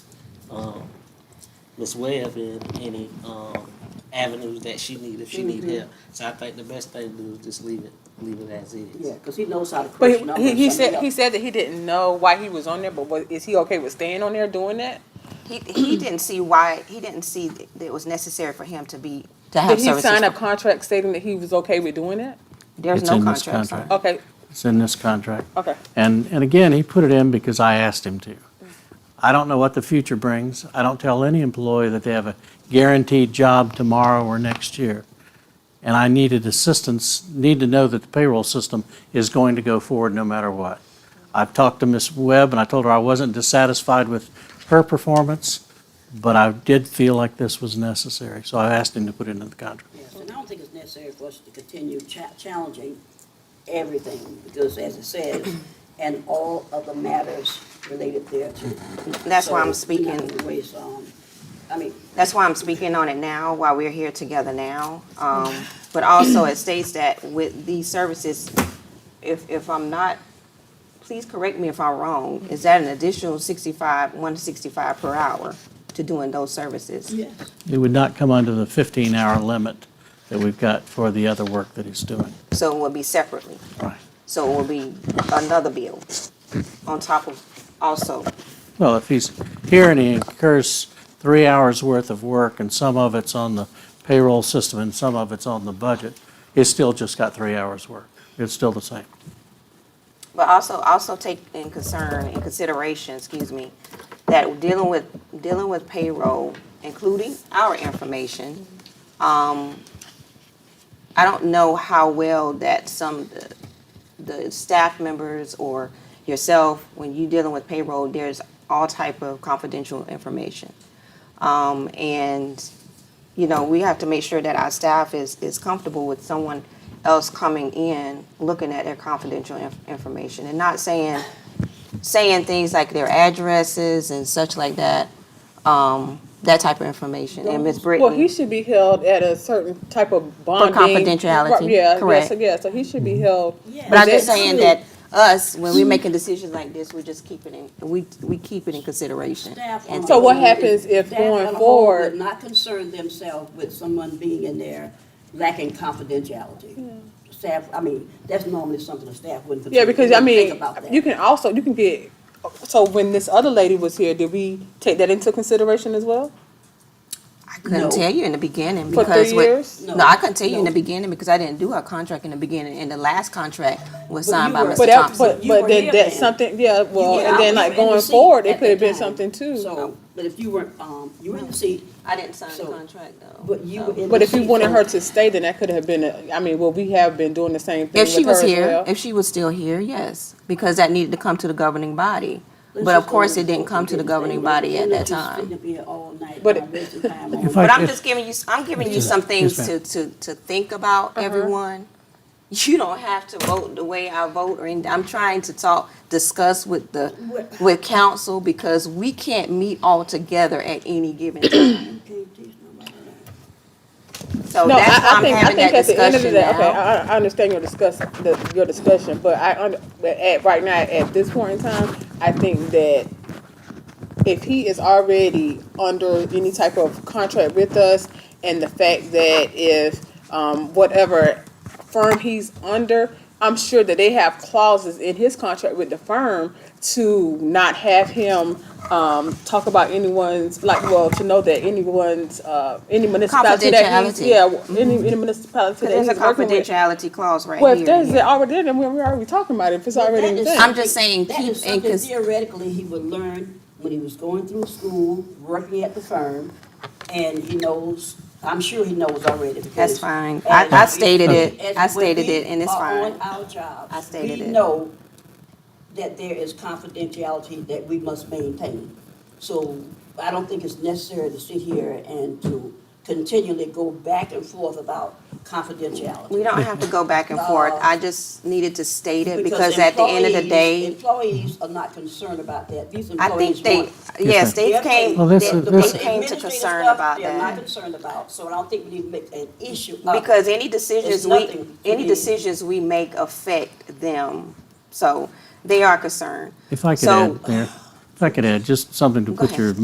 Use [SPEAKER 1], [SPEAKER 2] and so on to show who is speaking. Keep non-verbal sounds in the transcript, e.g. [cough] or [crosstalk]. [SPEAKER 1] um, Ms. Webb in any, um, avenues that she need, if she need
[SPEAKER 2] Mhm.
[SPEAKER 1] help. So I think the best thing to do is just leave it, leave it as is.
[SPEAKER 2] Yeah, because he knows how to
[SPEAKER 3] But
[SPEAKER 2] crunch
[SPEAKER 3] he-
[SPEAKER 2] numbers.
[SPEAKER 3] he, he
[SPEAKER 2] I mean,
[SPEAKER 3] said, he said that he didn't know why he was on there, but was, is he okay with staying on there doing that?
[SPEAKER 4] He, [clears throat] he didn't see why, he didn't see that it was necessary for him to be, to
[SPEAKER 3] Did
[SPEAKER 4] have
[SPEAKER 3] he sign a
[SPEAKER 4] services.
[SPEAKER 3] contract stating that he was okay with doing that?
[SPEAKER 4] There's
[SPEAKER 5] It's
[SPEAKER 4] no
[SPEAKER 5] in this
[SPEAKER 4] contract signed.
[SPEAKER 5] contract.
[SPEAKER 3] Okay,
[SPEAKER 5] It's in this contract.
[SPEAKER 3] okay.
[SPEAKER 5] And, and again, he put it in because I asked him to. I don't know what the future brings. I don't tell any employee that they have a guaranteed job tomorrow or next year. And I needed assistance, need to know that the payroll system is going to go forward no matter what. I've talked to Ms. Webb and I told her I wasn't dissatisfied with her performance, but I did feel like this was necessary. So I asked him to put it into the contract.
[SPEAKER 2] Yes, and I don't think it's necessary for us to continue cha- challenging everything, because as it says, and all other matters related thereto.
[SPEAKER 4] That's why I'm
[SPEAKER 2] So, we're not
[SPEAKER 4] speaking,
[SPEAKER 2] gonna waste, um, I mean,
[SPEAKER 4] that's why I'm speaking on it now, while we're here together now. Um, but also it states that with these services, if, if I'm not, please correct me if I'm wrong, is that an additional sixty-five, one sixty-five per hour to doing those services?
[SPEAKER 2] yes,
[SPEAKER 5] It would not come under the 15-hour limit that we've got for the other work that he's doing.
[SPEAKER 4] So it will be separately,
[SPEAKER 5] Right.
[SPEAKER 4] so it will be another bill on top of, also,
[SPEAKER 5] Well, if he's here and he incurs three hours' worth of work, and some of it's on the payroll system and some of it's on the budget, it's still just got three hours' work. It's still the same.
[SPEAKER 4] But also, also take in concern, in consideration, excuse me, that dealing with, dealing with payroll, including our information, um, I don't know how well that some, the staff members or yourself, when you dealing with payroll, there's all type of confidential information. Um, and, you know, we have to make sure that our staff is, is comfortable with someone else coming in, looking at their confidential inf- information and not saying, saying things like their addresses and such like that, um, that type of information. And Ms. Brittany.
[SPEAKER 3] Well, he should be held at a certain type of bonding.
[SPEAKER 4] confidentiality,
[SPEAKER 3] Right, Yeah, yeah,
[SPEAKER 4] correct.
[SPEAKER 3] so, yeah, so he should be held.
[SPEAKER 4] But I'm
[SPEAKER 3] that
[SPEAKER 4] just saying
[SPEAKER 3] clear.
[SPEAKER 4] that us, when we're making decisions like this, we just keep it in, we, we keep it in consideration.
[SPEAKER 2] staff.
[SPEAKER 4] And
[SPEAKER 2] on
[SPEAKER 3] So what
[SPEAKER 2] the whole-
[SPEAKER 3] happens if
[SPEAKER 2] staff
[SPEAKER 3] going
[SPEAKER 2] on the whole
[SPEAKER 3] forward-
[SPEAKER 2] Would not concern themselves with someone being in there lacking confidentiality. Staff, I mean, that's normally something the staff wouldn't. consider. They
[SPEAKER 3] Yeah, because I
[SPEAKER 2] wouldn't think
[SPEAKER 3] mean,
[SPEAKER 2] about that.
[SPEAKER 3] you can also, you can get, so when this other lady was here, did we take that into consideration as well?
[SPEAKER 4] I
[SPEAKER 2] No.
[SPEAKER 4] couldn't tell you in the beginning
[SPEAKER 3] For
[SPEAKER 4] because
[SPEAKER 3] three
[SPEAKER 4] what,
[SPEAKER 3] years?
[SPEAKER 2] No.
[SPEAKER 4] no, I couldn't tell you in the
[SPEAKER 2] No.
[SPEAKER 4] beginning because I didn't do our contract in the beginning. And the last contract was
[SPEAKER 2] But
[SPEAKER 4] signed
[SPEAKER 2] you
[SPEAKER 4] by
[SPEAKER 2] were-
[SPEAKER 4] Mr.
[SPEAKER 3] But that,
[SPEAKER 4] Thompson.
[SPEAKER 3] but,
[SPEAKER 2] You
[SPEAKER 3] but
[SPEAKER 2] were
[SPEAKER 3] then
[SPEAKER 2] here
[SPEAKER 3] that's
[SPEAKER 2] then.
[SPEAKER 3] something, yeah, well,
[SPEAKER 2] Yeah,
[SPEAKER 3] and
[SPEAKER 2] I
[SPEAKER 3] then
[SPEAKER 2] was
[SPEAKER 3] like
[SPEAKER 2] in the
[SPEAKER 3] going
[SPEAKER 2] seat
[SPEAKER 3] forward,
[SPEAKER 2] at
[SPEAKER 3] it could have
[SPEAKER 2] that
[SPEAKER 3] been
[SPEAKER 2] time.
[SPEAKER 3] something too.
[SPEAKER 2] So, but if you were, um, you were in the seat,
[SPEAKER 4] I didn't sign the
[SPEAKER 2] So-
[SPEAKER 4] contract though.
[SPEAKER 2] but you were in the seat.
[SPEAKER 3] But if you wanted her
[SPEAKER 2] so-
[SPEAKER 3] to stay, then that could have been, a- I mean, well, we have been doing the same thing
[SPEAKER 4] If she
[SPEAKER 3] with her
[SPEAKER 4] was
[SPEAKER 3] as
[SPEAKER 4] here,
[SPEAKER 3] well.
[SPEAKER 4] if she was still here, yes, because that needed to come to the governing body.
[SPEAKER 2] Let's
[SPEAKER 4] But of
[SPEAKER 2] just go
[SPEAKER 4] course,
[SPEAKER 2] with
[SPEAKER 4] it didn't come to the
[SPEAKER 2] They
[SPEAKER 4] governing
[SPEAKER 2] were
[SPEAKER 4] body at
[SPEAKER 2] gonna
[SPEAKER 4] that
[SPEAKER 2] just
[SPEAKER 4] time.
[SPEAKER 2] sit up here all night,
[SPEAKER 3] But-
[SPEAKER 2] uh, wasting time on-
[SPEAKER 5] If I
[SPEAKER 4] But I'm
[SPEAKER 5] could-
[SPEAKER 4] just giving you, I'm giving you some things
[SPEAKER 5] Yes,
[SPEAKER 4] to,
[SPEAKER 5] ma'am.
[SPEAKER 4] to, to think about,
[SPEAKER 3] Uh-huh.
[SPEAKER 4] everyone. You don't have to vote the way I vote or anything. I'm trying to talk, discuss with the, with council because we can't meet all together at any given time.
[SPEAKER 2] You can't teach nobody that.
[SPEAKER 4] So
[SPEAKER 3] No, I,
[SPEAKER 4] that's why
[SPEAKER 3] I
[SPEAKER 4] I'm
[SPEAKER 3] think, I
[SPEAKER 4] having that
[SPEAKER 3] think at the end of the
[SPEAKER 4] discussion
[SPEAKER 3] day, okay,
[SPEAKER 4] now.
[SPEAKER 3] I, I understand your discuss, the, your discussion, but I, under- but at, right now, at this point in time, I think that if he is already under any type of contract with us, and the fact that if, um, whatever firm he's under, I'm sure that they have clauses in his contract with the firm to not have him, um, talk about anyone's, like, well, to know that anyone's, uh, any municipality that he's,
[SPEAKER 4] Confidentiality.
[SPEAKER 3] yeah, any, any municipality that
[SPEAKER 4] There's a
[SPEAKER 3] he's working with.
[SPEAKER 4] confidentiality clause right
[SPEAKER 3] Well, if
[SPEAKER 4] here.
[SPEAKER 3] there's it already, there, then we're already talking about it, if it's
[SPEAKER 2] Well,
[SPEAKER 3] already
[SPEAKER 2] that
[SPEAKER 3] in
[SPEAKER 2] is
[SPEAKER 3] thing.
[SPEAKER 4] I'm just saying
[SPEAKER 2] That is
[SPEAKER 4] keep in
[SPEAKER 2] something
[SPEAKER 4] cons-
[SPEAKER 2] theoretically he would learn when he was going through school, working at the firm, and he knows, I'm sure he knows already.
[SPEAKER 4] That's
[SPEAKER 2] because
[SPEAKER 4] fine. I,
[SPEAKER 2] as-
[SPEAKER 4] I stated it.
[SPEAKER 2] as
[SPEAKER 4] I
[SPEAKER 2] when
[SPEAKER 4] stated
[SPEAKER 2] we
[SPEAKER 4] it and it's
[SPEAKER 2] are
[SPEAKER 4] fine.
[SPEAKER 2] on our job,
[SPEAKER 4] I stated
[SPEAKER 2] we
[SPEAKER 4] it.
[SPEAKER 2] know that there is confidentiality that we must maintain. So I don't think it's necessary to sit here and to continually go back and forth about confidentiality.
[SPEAKER 4] We don't have to go back and forth. I just needed to state it because at the end of the
[SPEAKER 2] employees-
[SPEAKER 4] day,
[SPEAKER 2] Employees are not concerned about that. These
[SPEAKER 4] I
[SPEAKER 2] employees
[SPEAKER 4] think they,
[SPEAKER 2] want-
[SPEAKER 4] yes, they
[SPEAKER 2] They're
[SPEAKER 4] came,
[SPEAKER 5] Well, this
[SPEAKER 4] they
[SPEAKER 5] is-
[SPEAKER 4] they
[SPEAKER 5] this-
[SPEAKER 4] came to
[SPEAKER 2] Administrative
[SPEAKER 4] concern
[SPEAKER 2] stuff,
[SPEAKER 4] about
[SPEAKER 2] They're not
[SPEAKER 4] that.
[SPEAKER 2] concerned about, so I don't think we need to make an issue of.
[SPEAKER 4] Because any decisions we,
[SPEAKER 2] nothing to
[SPEAKER 4] any
[SPEAKER 2] me.
[SPEAKER 4] decisions we make affect them, so they are concerned.
[SPEAKER 5] If I could
[SPEAKER 4] So-
[SPEAKER 5] add, Mayor, if I could add just something to
[SPEAKER 4] Go
[SPEAKER 5] put your
[SPEAKER 4] ahead.